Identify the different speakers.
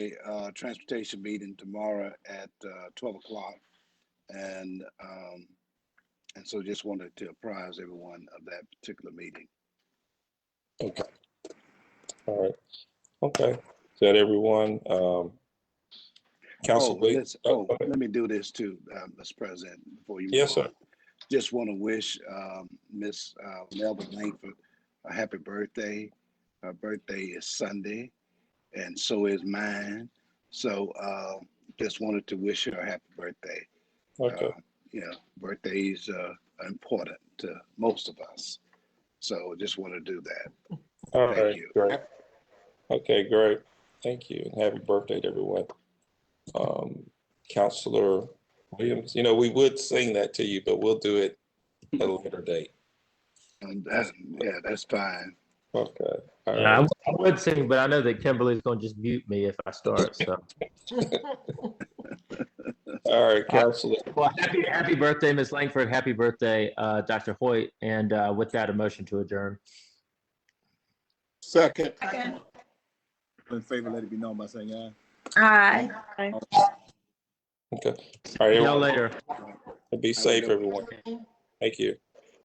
Speaker 1: uh, transportation meeting tomorrow at uh, twelve o'clock. And, um, and so just wanted to apprise everyone of that particular meeting.
Speaker 2: Okay. All right. Okay. Is that everyone? Um,
Speaker 1: Oh,
Speaker 2: Council Wade?
Speaker 1: let's-
Speaker 2: oh,
Speaker 1: Oh,
Speaker 2: go ahead.
Speaker 1: let me do this too, uh, Mr. President, before you. move
Speaker 2: Yes, sir.
Speaker 1: on. Just want to wish um, Miss uh, Melba Langford a happy birthday. Her birthday is Sunday, and so is mine. So uh, just wanted to wish her a happy birthday.
Speaker 2: Okay.
Speaker 1: Uh, You know, birthdays uh, are important to most of us. So just want to do that.
Speaker 2: All
Speaker 1: thank
Speaker 2: right.
Speaker 1: you.
Speaker 2: Great. Okay, great. Thank you. and Happy birthday to everyone. Um, Counselor Williams, you know, we would sing that to you, but we'll do it at a later date.
Speaker 1: And that, yeah, that's fine.
Speaker 2: Okay. All
Speaker 3: Yeah, I
Speaker 2: right.
Speaker 3: w- I would sing, but I know that Kimberly's gonna just mute me if I start, so.
Speaker 2: All right, Counselor.
Speaker 3: Well, happy, happy birthday, Ms. Langford. Happy birthday, uh, Dr. Hoyt. And, uh, with that, a motion to adjourn.
Speaker 4: Second.
Speaker 5: Second.
Speaker 4: In favor, let it be known by saying aye.
Speaker 5: Aye.
Speaker 2: Okay. All right,
Speaker 3: See
Speaker 2: everyone.
Speaker 3: y'all later.
Speaker 2: Be safe, everyone. Thank you.